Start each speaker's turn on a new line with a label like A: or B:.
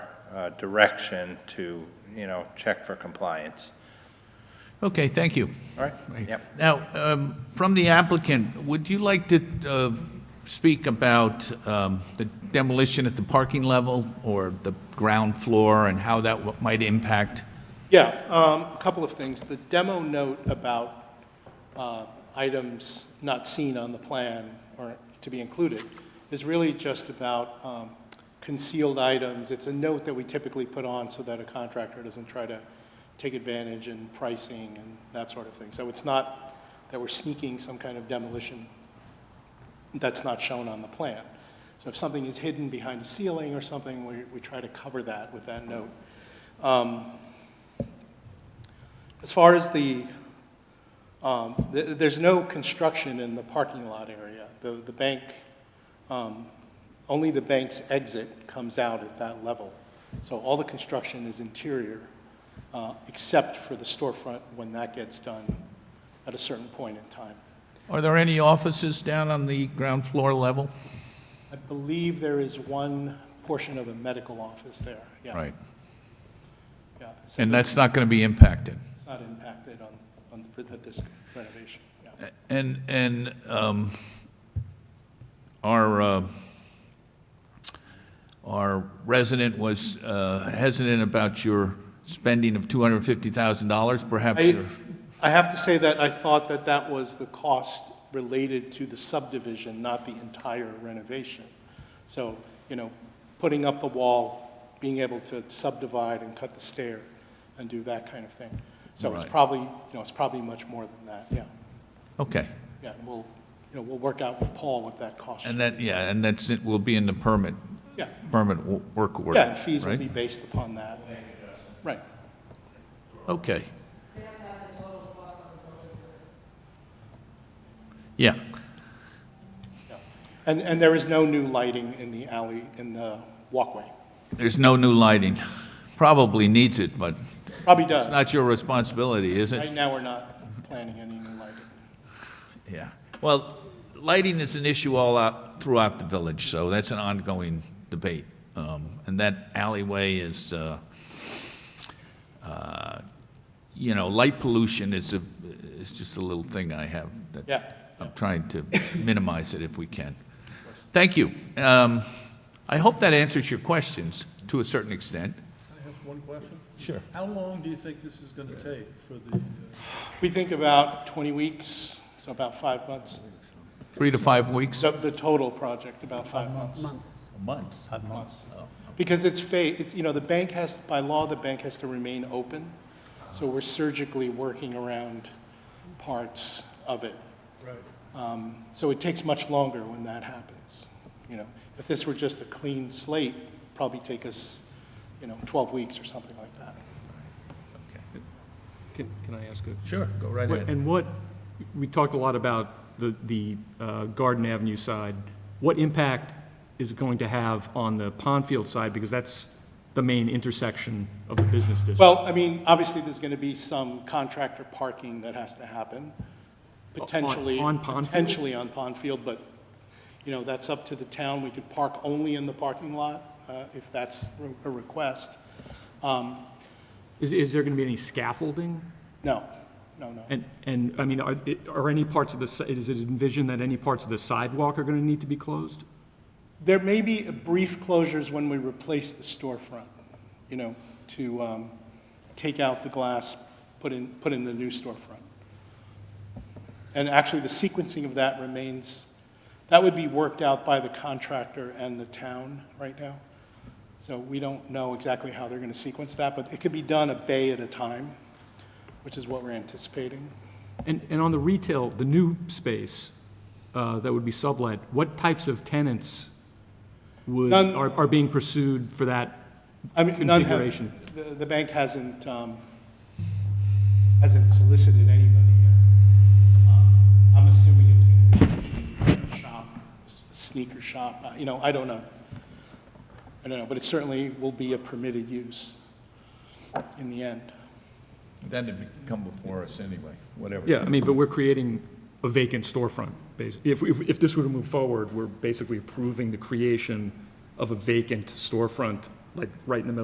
A: uh, direction to, you know, check for compliance.
B: Okay, thank you.
A: All right? Yep.
B: Now, um, from the applicant, would you like to uh, speak about um, the demolition at the parking level or the ground floor and how that w- might impact?
C: Yeah, um, a couple of things. The demo note about uh, items not seen on the plan or to be included is really just about um, concealed items. It's a note that we typically put on so that a contractor doesn't try to take advantage in pricing and that sort of thing. So it's not that we're sneaking some kind of demolition that's not shown on the plan. So if something is hidden behind a ceiling or something, we we try to cover that with that note. As far as the, um, th- there's no construction in the parking lot area. The, the bank, um, only the bank's exit comes out at that level. So all the construction is interior, uh, except for the storefront when that gets done at a certain point in time.
B: Are there any offices down on the ground floor level?
C: I believe there is one portion of a medical office there, yeah.
B: Right.
C: Yeah, so
B: And that's not going to be impacted?
C: it's not impacted on, on, for this renovation, yeah.
B: And, and um, our, uh, our resident was uh, hesitant about your spending of $250,000, perhaps
C: I,
B: you're-
C: I have to say that I thought that that was the cost related to the subdivision, not the entire renovation. So, you know, putting up the wall, being able to subdivide and cut the stair and do that kind of thing. So it's
B: Right.
C: probably, you know, it's probably much more than that, yeah.
B: okay.
C: Yeah, and we'll, you know, we'll work out with Paul what that cost.
B: And that, yeah, and that's, it will be in the permit,
C: Yeah,
B: permit wo- work order,
C: yeah, and fees will
B: right?
C: be based upon that. Right,
B: Okay. Yeah,
C: and, and there is no new lighting in the alley, in the walkway.
B: there's no new lighting. Probably needs it, but
C: Probably does.
B: it's not your responsibility, is it?
C: Right now, we're not planning any new lighting.
B: Yeah, well, lighting is an issue all out throughout the village, so that's an ongoing debate. Um, And that alleyway is, uh, uh, you know, light pollution is a, is just a little thing I have. that
C: Yeah.
B: I'm trying to minimize it if we can. Thank you. Um, I hope that answers your questions to a certain extent.
D: I have one question?
B: Sure.
D: How long do you think this is gonna take for the, uh,
C: We think about 20 weeks, so about five months.
B: Three to five weeks?
C: The, the total project, about five months.
B: Months.
C: Months. Because it's fa, it's, you know, the bank has, by law, the bank has to remain open. So we're surgically working around parts of it.
D: right,
C: Um, So it takes much longer when that happens, you know. If this were just a clean slate, probably take us, you know, 12 weeks or something like that.
E: Can, can I ask a?
B: Sure, go right ahead.
E: And what, we talked a lot about the, the uh, Garden Avenue side. What impact is it going to have on the Pondfield side? Because that's the main intersection of the business district.
C: Well, I mean, obviously, there's going to be some contractor parking that has to happen, potentially.
E: on Pond Field?
C: Potentially on Pond Field, but, you know, that's up to the town. We could park only in the parking lot uh, if that's re- a request.
E: Is, is there going to be any scaffolding?
C: No, no, no.
E: And, and, I mean, are, it- are any parts of the, si- is it envisioned that any parts of the sidewalk are going to need to be closed?
C: There may be brief closures when we replace the storefront, you know, to um, take out the glass, put in, put in the new storefront. And actually, the sequencing of that remains, that would be worked out by the contractor and the town right now. So we don't know exactly how they're going to sequence that, but it could be done a bay at a time, which is what we're anticipating.
E: And, and on the retail, the new space uh, that would be sublet, what types of tenants would,
C: None-
E: are, are being pursued for that?
C: I mean, none have-
E: Configuration.
C: the, the bank hasn't, um, hasn't solicited anybody yet. Um, I'm assuming it's gonna be a shop, sneaker shop, uh, you know, I don't know. I don't know, but it certainly will be a permitted use in the end.
B: Then it'd come before us anyway, whatever.
E: Yeah, I mean, but we're creating a vacant storefront, basically. If, if, if this were to move forward, we're basically approving the creation of a vacant storefront, like, right in the middle